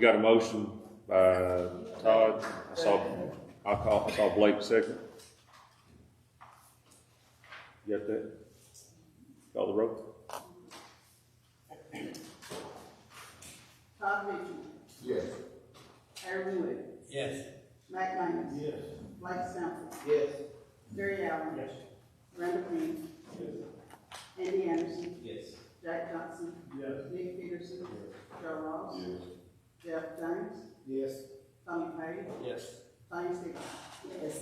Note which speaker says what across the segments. Speaker 1: got a motion by Todd, I saw, I call, I saw Blake second. You Got that? Call the rope.
Speaker 2: Todd Mitchell,
Speaker 3: Yes.
Speaker 2: Aaron Wood,
Speaker 4: Yes.
Speaker 2: Mike Minus,
Speaker 3: Yes.
Speaker 2: Blake Sample,
Speaker 3: Yes.
Speaker 2: Jerry Allen.
Speaker 4: Yes.
Speaker 2: Randall Reed. Andy Anderson,
Speaker 4: Yes.
Speaker 2: Jack Johnson,
Speaker 3: Yes.
Speaker 2: Nick Peterson, Joe Ross, Jeff James,
Speaker 3: Yes.
Speaker 2: Tommy Page,
Speaker 4: Yes.
Speaker 2: Tommy Stigall. Yes.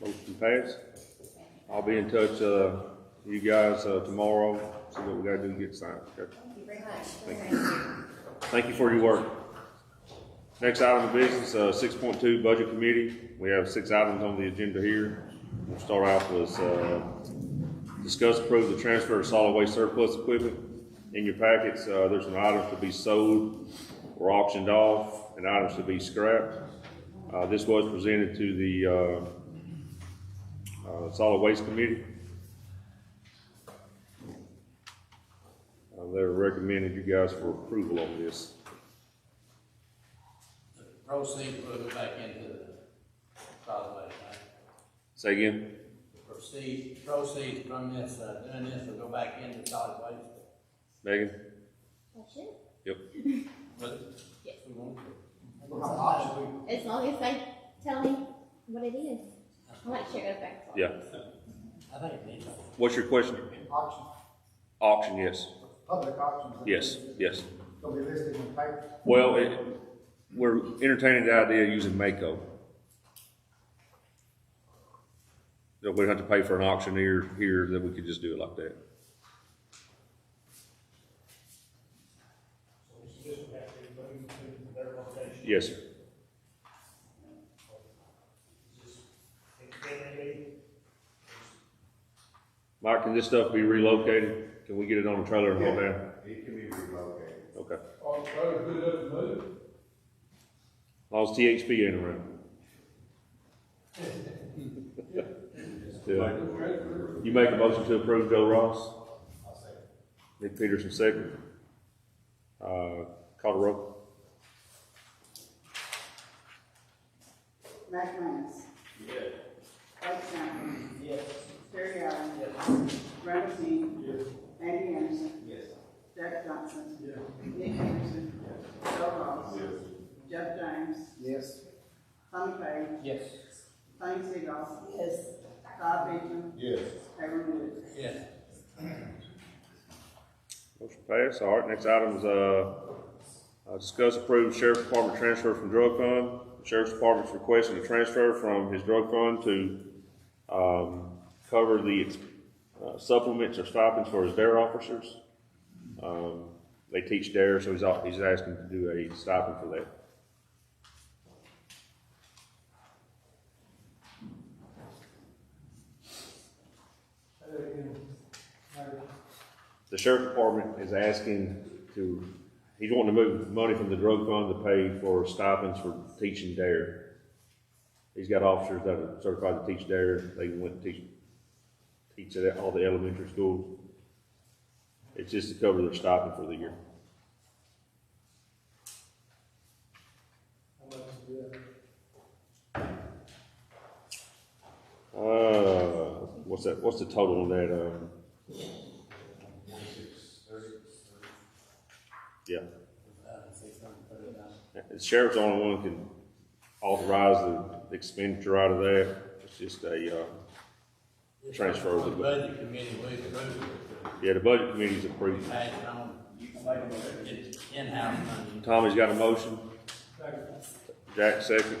Speaker 1: Motion passed. I'll be in touch, uh, you guys, uh, tomorrow, see what we gotta do to get signed, okay?
Speaker 5: Thank you very much.
Speaker 1: Thank you for your work. Next item of business, uh, six point two, Budget Committee. We have six items on the agenda here. We'll start off with, uh, discuss approve the transfer of solid waste surplus equipment. In your packets, uh, there's an item to be sold or auctioned off, and items to be scrapped. Uh, this was presented to the, uh, uh, Solid Waste Committee. Uh, They're recommending you guys for approval on this.
Speaker 4: The Proceed, put it back into the solid waste, right?
Speaker 1: Say again?
Speaker 4: Proceed, proceeds from this, uh, doing this will go back into solid waste.
Speaker 1: Megan?
Speaker 5: That's it.
Speaker 1: Yep.
Speaker 4: But
Speaker 5: Yes.
Speaker 4: we won't.
Speaker 5: As long as they tell me what it is, I like to share it back.
Speaker 1: Yeah.
Speaker 4: I think it needs,
Speaker 1: What's your question?
Speaker 6: auction,
Speaker 1: Auction, yes.
Speaker 6: public auctions.
Speaker 1: Yes, yes.
Speaker 6: They'll be listed in papers.
Speaker 1: Well, it, we're entertaining the idea of using Mako. That we'd have to pay for an auctioneer here, then we could just do it like that. Yes, sir. Mike, can this stuff be relocated? Can we get it on a trailer and haul down?
Speaker 3: It can be relocated.
Speaker 1: Okay.
Speaker 7: All the roads good enough to move?
Speaker 1: As long as THP ain't around. Yeah. You make a motion to approve Joe Ross? Nick Peterson second. Uh, call the roll.
Speaker 2: Mike Minus. Yes. Blake Sample,
Speaker 4: yes.
Speaker 2: Jerry Allen.
Speaker 4: Yes.
Speaker 2: Randall Reed.
Speaker 7: Yes.
Speaker 2: Andy Anderson,
Speaker 4: Yes.
Speaker 2: Jack Johnson,
Speaker 7: Yeah.
Speaker 2: Nick Peterson, Joe Ross, Jeff James,
Speaker 6: Yes.
Speaker 2: Tommy Page,
Speaker 4: Yes.
Speaker 2: Tommy Stigall. Yes. Todd Mitchell,
Speaker 3: Yes.
Speaker 2: Aaron Wood.
Speaker 4: Yes.
Speaker 1: Motion passed. All right, next item is, uh, uh, discuss approve sheriff's department transfer from drug fund. Sheriff's department's requesting a transfer from his drug fund to, um, cover the uh, supplements or stipends for his dare officers. Um, they teach dare, so he's, al- he's asking to do a stipend for that. The sheriff department is asking to, he's wanting to move money from the drug fund to pay for stipends for teaching dare. He's got officers that are certified to teach dare, they went and teach, teach at all the elementary schools. It's just to cover their stipend for the year. Uh, what's that, what's the total on that, um? Yeah.
Speaker 4: Uh, six hundred thirty thousand.
Speaker 1: The sheriff's the only one who can authorize the expenditure out of that. It's just a, uh, Transfer over
Speaker 4: The
Speaker 1: the-
Speaker 4: budget committee, we approved
Speaker 1: yeah, the budget committee's
Speaker 4: it, we
Speaker 1: approved.
Speaker 4: passed it on, it's in-house money.
Speaker 1: Tommy's got a motion. Jack, second.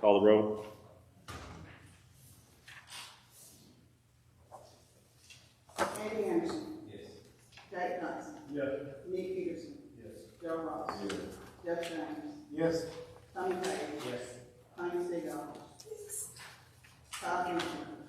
Speaker 1: Call the roll.